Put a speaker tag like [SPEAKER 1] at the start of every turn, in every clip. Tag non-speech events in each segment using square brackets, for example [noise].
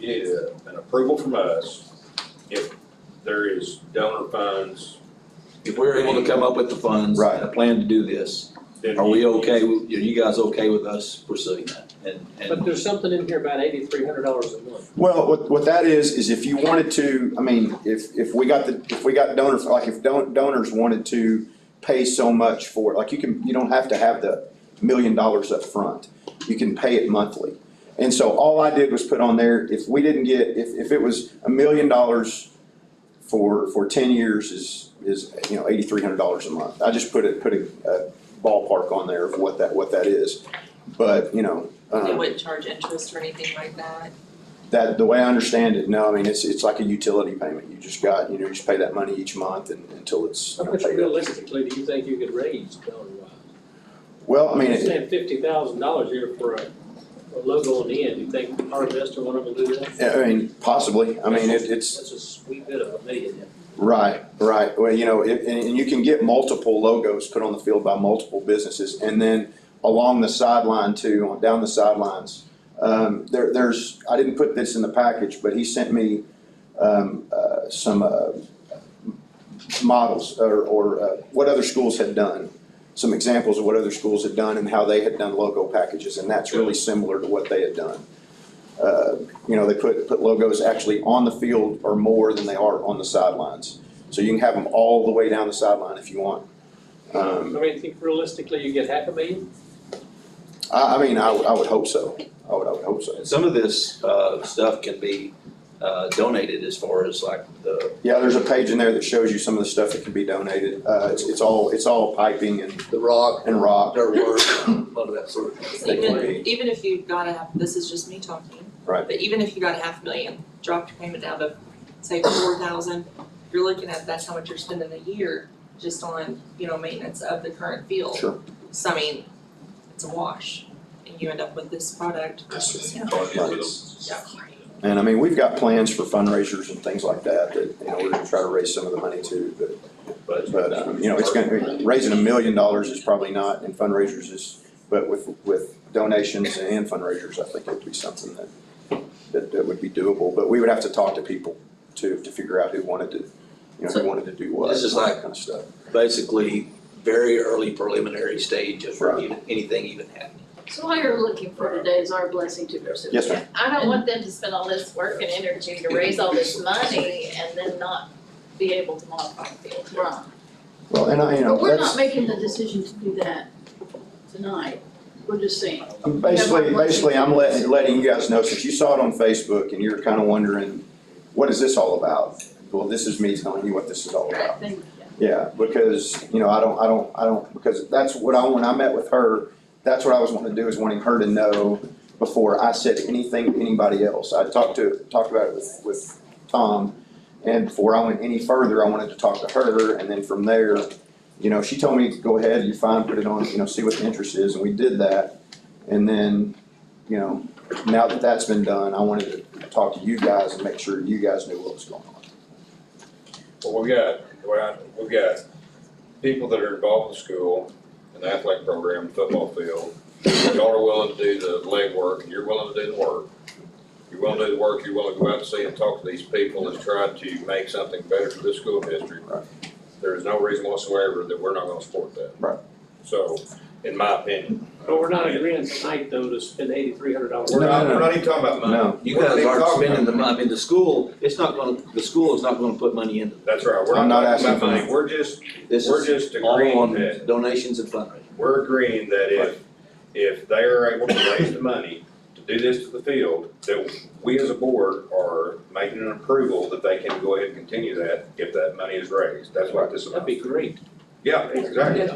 [SPEAKER 1] get a- an approval from us if there is donor funds,
[SPEAKER 2] If we're able to come up with the funds
[SPEAKER 3] Right.
[SPEAKER 2] and a plan to do this,
[SPEAKER 1] then.
[SPEAKER 2] are we
[SPEAKER 1] you-
[SPEAKER 2] okay, with- are you guys okay with us pursuing that? And,
[SPEAKER 4] But
[SPEAKER 2] and,
[SPEAKER 4] there's something in here about eighty-three hundred dollars a month.
[SPEAKER 3] Well, what, what that is, is if you wanted to, I mean, if, if we got the, if we got donors, like if don- donors wanted to pay so much for it, like you can, you don't have to have the million dollars up front. You can pay it monthly. And so all I did was put on there, if we didn't get, if, if it was a million dollars for, for ten years is, is, you know, eighty-three hundred dollars a month. I just put it, put a a ballpark on there of what that, what that is. But, you know. um,
[SPEAKER 5] It wouldn't charge interest or anything like that.
[SPEAKER 3] that, the way I understand it, no, I mean, it's, it's like a utility payment, you just got, you know, you just pay that money each month and, until it's.
[SPEAKER 4] How
[SPEAKER 3] you know,
[SPEAKER 4] much
[SPEAKER 3] paid up.
[SPEAKER 4] realistically do you think you could raise donor-wise?
[SPEAKER 3] Well, I mean,
[SPEAKER 4] You're
[SPEAKER 3] it-
[SPEAKER 4] saying fifty thousand dollars here for a, a logo on the end, you think our investor want them to do that?
[SPEAKER 3] I mean, possibly, I mean, it, it's,
[SPEAKER 4] That's a sweet bit of a million.
[SPEAKER 3] right, right, well, you know, it, and, and you can get multiple logos put on the field by multiple businesses, and then along the sideline too, on- down the sidelines, um, there, there's, I didn't put this in the package, but he sent me, um, uh, some, uh, models or, or uh, what other schools had done, some examples of what other schools had done and how they had done logo packages, and that's really similar to what they had done. Uh, You know, they put, put logos actually on the field or more than they are on the sidelines. So you can have them all the way down the sideline if you want.
[SPEAKER 4] I
[SPEAKER 3] Um,
[SPEAKER 4] mean, think realistically, you get half a million?
[SPEAKER 3] I, I mean, I, would- I would hope so. I would, I would hope so.
[SPEAKER 2] and some of this, uh, stuff can be, uh, donated as far as like the,
[SPEAKER 3] Yeah, there's a page in there that shows you some of the stuff that can be donated. Uh, It's, it's all, it's all piping and,
[SPEAKER 2] the rock,
[SPEAKER 3] and rock.
[SPEAKER 2] dirt work, a lot of that sort of thing.
[SPEAKER 3] They can
[SPEAKER 5] Even, even if you got a half, this is just me talking.
[SPEAKER 3] Right.
[SPEAKER 5] But even if you got a half million, dropped your payment down to, say, four thousand, you're looking at, that's how much you're spending a year just on, you know, maintenance of the current field.
[SPEAKER 3] Sure.
[SPEAKER 5] So I mean, it's a wash, and you end up with this product.
[SPEAKER 3] And I mean, we've got plans for fundraisers and things like that, that, you know, we're gonna try to raise some of the money too, but, but, um, you know, it's gonna, raising a million dollars is probably not, and fundraisers is, but with, with donations and fundraisers, I think it'd be something that, that, that would be doable, but we would have to talk to people to, to figure out who wanted to, you know, who wanted to do what.
[SPEAKER 2] This is
[SPEAKER 3] all that
[SPEAKER 2] like-
[SPEAKER 3] Kind of stuff.
[SPEAKER 2] Basically, very early preliminary stage of
[SPEAKER 3] Right.
[SPEAKER 2] even- anything even happening.
[SPEAKER 6] So all you're looking for today is our blessing to pursue.
[SPEAKER 3] Yes, ma'am.
[SPEAKER 6] I don't want them to spend all this work and energy to raise all this money and then not be able to modify the field. Right.
[SPEAKER 3] Well, and I, you know,
[SPEAKER 6] But we're not
[SPEAKER 3] that's,
[SPEAKER 6] making the decision to do that tonight. We're just saying,
[SPEAKER 3] I'm basically,
[SPEAKER 6] Yeah, we're-
[SPEAKER 3] basically, I'm letting, letting you guys know, since you saw it on Facebook and you're kinda wondering, what is this all about? Well, this is me telling you what this is all about.
[SPEAKER 6] I think,
[SPEAKER 3] Yeah, because, you know, I don't, I don't, I don't, because that's what I, when I met with her, that's what I was wanting to do, is wanting her to know before I said anything to anybody else. I talked to, talked about it with, with Tom, and before I went any further, I wanted to talk to her, and then from there, you know, she told me, go ahead, you're fine, put it on, you know, see what the interest is, and we did that. And then, you know, now that that's been done, I wanted to talk to you guys and make sure you guys knew what was going on.
[SPEAKER 1] Well, we got, well, I- we got people that are involved in school, in the athletic program, football field. Y'all are willing to do the legwork, and you're willing to do the work. You're willing to do the work, you're willing to go out and see and talk to these people and try to make something better for this school district.
[SPEAKER 3] Right.
[SPEAKER 1] There is no reason whatsoever that we're not gonna support that.
[SPEAKER 3] Right.
[SPEAKER 1] So, in my opinion.
[SPEAKER 4] But we're not agreeing tonight, though, to spend eighty-three hundred dollars.
[SPEAKER 1] We're not,
[SPEAKER 3] No, no,
[SPEAKER 1] we're
[SPEAKER 3] no.
[SPEAKER 1] not even talking about money.
[SPEAKER 3] No,
[SPEAKER 2] You
[SPEAKER 1] We're not
[SPEAKER 2] guys
[SPEAKER 1] even
[SPEAKER 2] aren't
[SPEAKER 1] talking
[SPEAKER 2] spending the,
[SPEAKER 1] about
[SPEAKER 2] mon- I mean, the school, it's not gonna, the school is not gonna put money into
[SPEAKER 1] That's right, we're
[SPEAKER 3] I'm
[SPEAKER 1] not
[SPEAKER 3] not
[SPEAKER 1] talking about
[SPEAKER 3] asking for
[SPEAKER 1] money, we're just,
[SPEAKER 2] this.
[SPEAKER 1] we're
[SPEAKER 2] is
[SPEAKER 1] just
[SPEAKER 2] all
[SPEAKER 1] agreeing
[SPEAKER 2] on
[SPEAKER 1] that
[SPEAKER 2] donations and fundraising.
[SPEAKER 1] we're agreeing that if, if they are able to raise the money to do this to the field, that we as a board are making an approval that they can go ahead and continue that if that money is raised. That's what this is
[SPEAKER 4] That'd
[SPEAKER 1] about.
[SPEAKER 4] be great.
[SPEAKER 1] Yeah, exactly.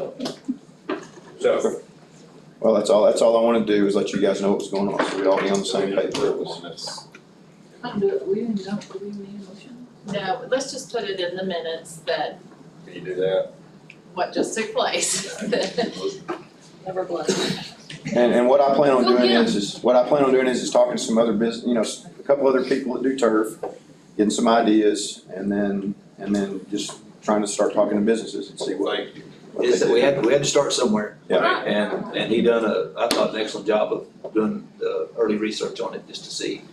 [SPEAKER 1] So.
[SPEAKER 3] Well, that's all, that's all I wanna do is let you guys know what's going on, so we all be on the same page.
[SPEAKER 5] I don't do it, we didn't, we didn't need a motion.
[SPEAKER 6] no, let's just put it in the minutes that
[SPEAKER 1] Can you do
[SPEAKER 4] [laughs]
[SPEAKER 1] that?
[SPEAKER 6] what just took place. [laughs]
[SPEAKER 5] Never blessed.
[SPEAKER 3] And, and what I plan on
[SPEAKER 6] Go
[SPEAKER 3] doing
[SPEAKER 6] get 'em.
[SPEAKER 3] is, is, what I plan on doing is, is talking to some other business, you know, s- a couple other people that do turf, getting some ideas, and then, and then just trying to start talking to businesses and see what.
[SPEAKER 1] Thank you.
[SPEAKER 3] what they
[SPEAKER 2] Is that
[SPEAKER 3] do.
[SPEAKER 2] we had, we had to start somewhere.
[SPEAKER 3] Yeah.
[SPEAKER 2] And, and he done a, I thought an excellent job of doing the early research on it, just to see